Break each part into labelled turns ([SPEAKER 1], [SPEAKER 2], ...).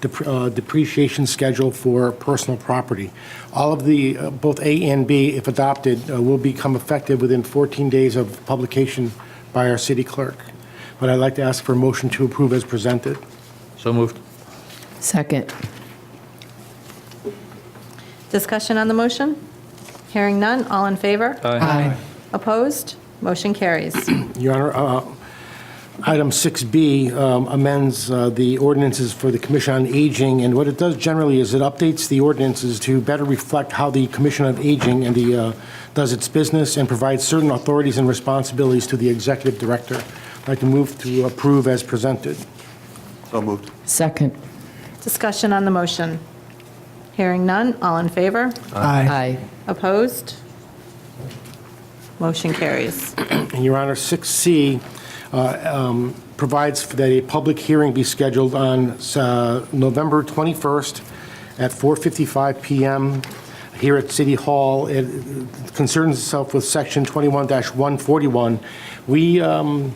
[SPEAKER 1] dep- uh, depreciation schedule for personal property. All of the, uh, both A and B, if adopted, uh, will become effective within 14 days of publication by our city clerk. But I'd like to ask for a motion to approve as presented.
[SPEAKER 2] So moved.
[SPEAKER 3] Second.
[SPEAKER 4] Discussion on the motion? Hearing none, all in favor?
[SPEAKER 3] Aye.
[SPEAKER 4] Opposed? Motion carries.
[SPEAKER 1] Your Honor, uh, item 6B um, amends uh, the ordinances for the Commission on Aging, and what it does generally is it updates the ordinances to better reflect how the Commission on Aging and the, uh, does its business and provides certain authorities and responsibilities to the Executive Director. I'd like to move to approve as presented.
[SPEAKER 5] So moved.
[SPEAKER 3] Second.
[SPEAKER 4] Discussion on the motion? Hearing none, all in favor?
[SPEAKER 3] Aye.
[SPEAKER 4] Opposed? Motion carries.
[SPEAKER 1] And Your Honor, 6C uh, um, provides for that a public hearing be scheduled on uh, November 21st at 4:55 PM here at City Hall. It concerns itself with Section 21-141. We um,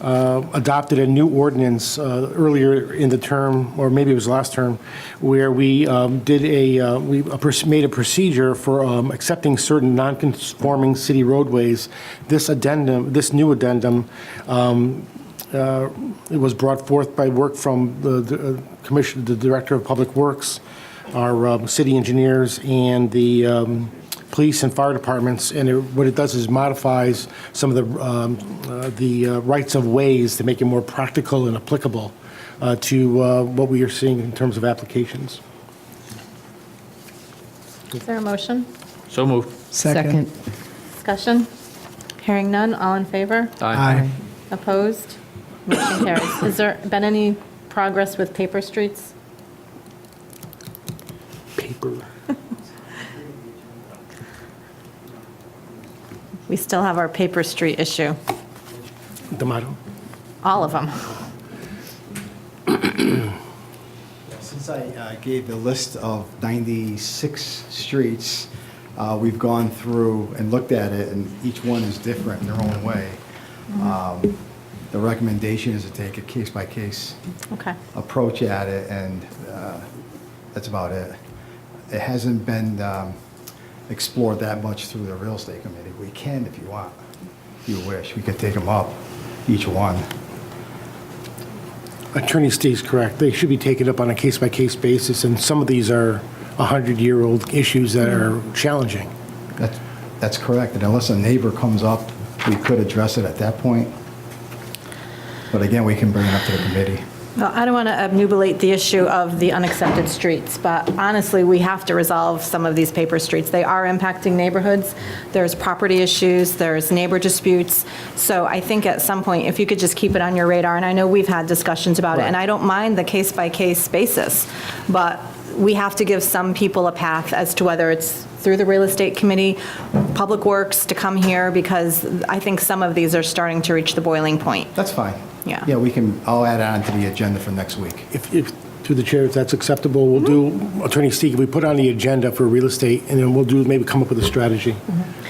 [SPEAKER 1] uh, adopted a new ordinance uh, earlier in the term, or maybe it was last term, where we um, did a, uh, we a proc- made a procedure for um, accepting certain non-conforming city roadways. This addendum, this new addendum it was brought forth by work from the- the uh, Commission, the Director of Public Works, our um, city engineers, and the um, police and fire departments. And it- what it does is modifies some of the um, uh, the uh, rights of ways to make it more practical and applicable uh, to uh, what we are seeing in terms of applications.
[SPEAKER 4] Is there a motion?
[SPEAKER 2] So moved.
[SPEAKER 3] Second.
[SPEAKER 4] Discussion? Hearing none, all in favor?
[SPEAKER 2] Aye.
[SPEAKER 4] Opposed? Motion carries. Has there been any progress with paper streets?
[SPEAKER 1] Paper.
[SPEAKER 4] We still have our paper street issue,
[SPEAKER 1] D'Amato?
[SPEAKER 4] all of them.
[SPEAKER 6] Since I uh, gave the list of 96 streets, uh, we've gone through and looked at it, and each one is different in their own way. Um, The recommendation is to take a case-by-case
[SPEAKER 4] Okay.
[SPEAKER 6] approach at it, and uh, that's about it. It hasn't been um, explored that much through the real estate committee. We can if you want, if you wish. We could take them up, each one.
[SPEAKER 1] Attorney Steve's correct. They should be taken up on a case-by-case basis, and some of these are 100-year-old issues that are challenging.
[SPEAKER 6] That's, that's correct, and unless a neighbor comes up, we could address it at that point. But again, we can bring it up to the committee.
[SPEAKER 4] Well, I don't want to obnubilate the issue of the unaccepted streets, but honestly, we have to resolve some of these paper streets. They are impacting neighborhoods. There's property issues, there's neighbor disputes. So I think at some point, if you could just keep it on your radar, and I know we've had discussions about it, and I don't mind the case-by-case basis, but we have to give some people a path as to whether it's through the real estate committee, Public Works to come here, because I think some of these are starting to reach the boiling point.
[SPEAKER 6] That's fine.
[SPEAKER 4] Yeah.
[SPEAKER 6] Yeah, we can, I'll add on to the agenda for next week.
[SPEAKER 1] If, if, through the chair, if that's acceptable, we'll do, Attorney Steig, we put on the agenda for real estate, and then we'll do, maybe come up with a strategy.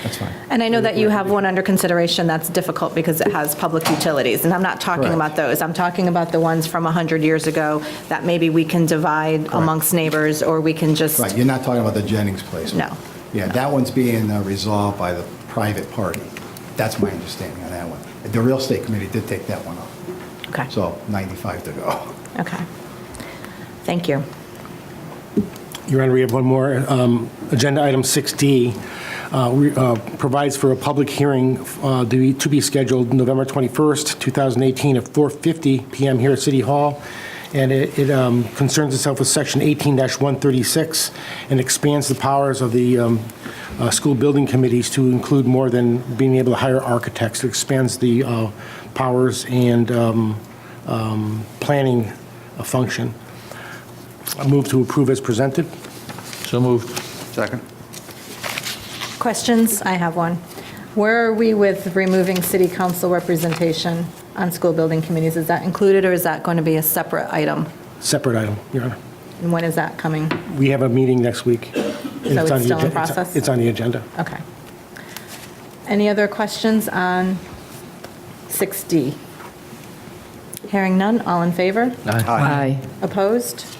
[SPEAKER 6] That's fine.
[SPEAKER 4] And I know that you have one under consideration that's difficult because it has public utilities, and I'm not talking
[SPEAKER 6] Correct.
[SPEAKER 4] about those. I'm talking about the ones from 100 years ago that maybe we can divide amongst neighbors, or we can just,
[SPEAKER 6] Right, you're not talking about the Jennings place?
[SPEAKER 4] No.
[SPEAKER 6] Yeah, that one's being uh, resolved by the private party. That's my understanding on that one. The real estate committee did take that one up,
[SPEAKER 4] okay,
[SPEAKER 6] so 95 to go.
[SPEAKER 4] okay. Thank you.
[SPEAKER 1] Your Honor, we have one more. Um, Agenda item 6D uh, we- uh, provides for a public hearing uh, to be- to be scheduled November 21st, 2018, at 4:50 PM here at City Hall, and it it, um, concerns itself with Section 18-136 and expands the powers of the um, uh, school building committees to include more than being able to hire architects. It expands the uh, powers and um, um, planning uh, function. I move to approve as presented.
[SPEAKER 2] So moved.
[SPEAKER 5] Second.
[SPEAKER 4] Questions? I have one. Where are we with removing city council representation on school building committees? Is that included, or is that going to be a separate item?
[SPEAKER 1] Separate item, Your Honor.
[SPEAKER 4] And when is that coming?
[SPEAKER 1] We have a meeting next week. So
[SPEAKER 4] it's still in process?
[SPEAKER 1] It's on the agenda.
[SPEAKER 4] Okay. Any other questions on 6D? Hearing none, all in favor?
[SPEAKER 3] Aye.
[SPEAKER 4] Opposed?